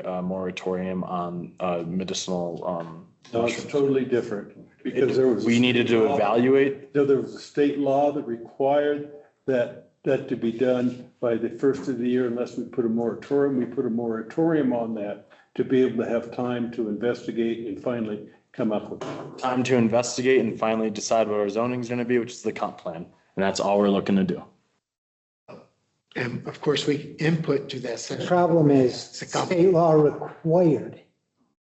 uh, moratorium on uh, medicinal, um, No, it's totally different because there was. we needed to evaluate. No, there was a state law that required that, that to be done by the first of the year unless we put a moratorium. We put a moratorium on that to be able to have time to investigate and finally come up with. it. time to investigate and finally decide what our zoning's gonna be, which is the comp plan. And that's all we're looking to do. And of course, we input to that The session. problem is It's a comp- state law required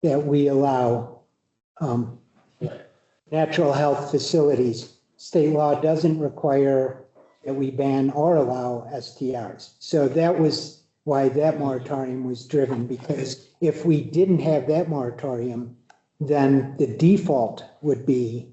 that we allow um, natural health facilities. State law doesn't require that we ban or allow STRs. So that was why that moratorium was driven, because if we didn't have that moratorium, then the default would be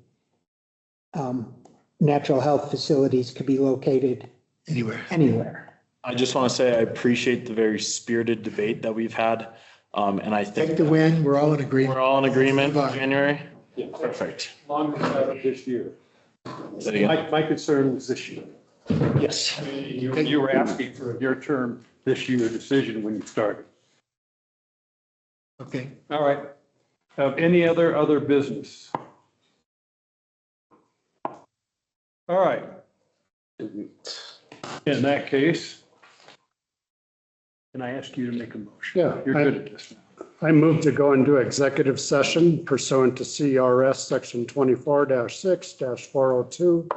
um, natural health facilities could be located Anywhere, anywhere. I just wanna say I appreciate the very spirited debate that we've had. Um, and I take think the win, we're all in agreement. we're all in agreement, Goodbye. January. Yeah. Perfect. Long as that this year. Is that again? My, my concern was this year. Yes. You you were asking for your term this year decision when you started. Okay, All right. Of any other, other business? All right. In that case, can I ask you to make a motion? Yeah, You're good I, at this. now. I move to go into executive session pursuant to CRS section twenty-four six four oh two,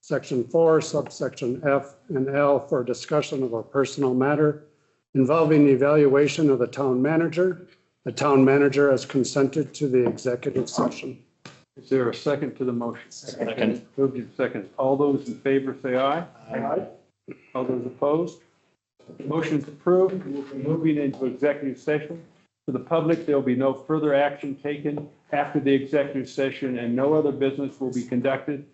section four, subsection F and L for discussion of a personal matter involving the evaluation of the town manager. The town manager has consented to the executive session. Is there a second to the motion? Second. Moved in second. All those in favor say aye. Aye. All those opposed? Motion's approved. We'll be moving into executive session. For the public, there'll be no further action taken after the executive session and no other business will be conducted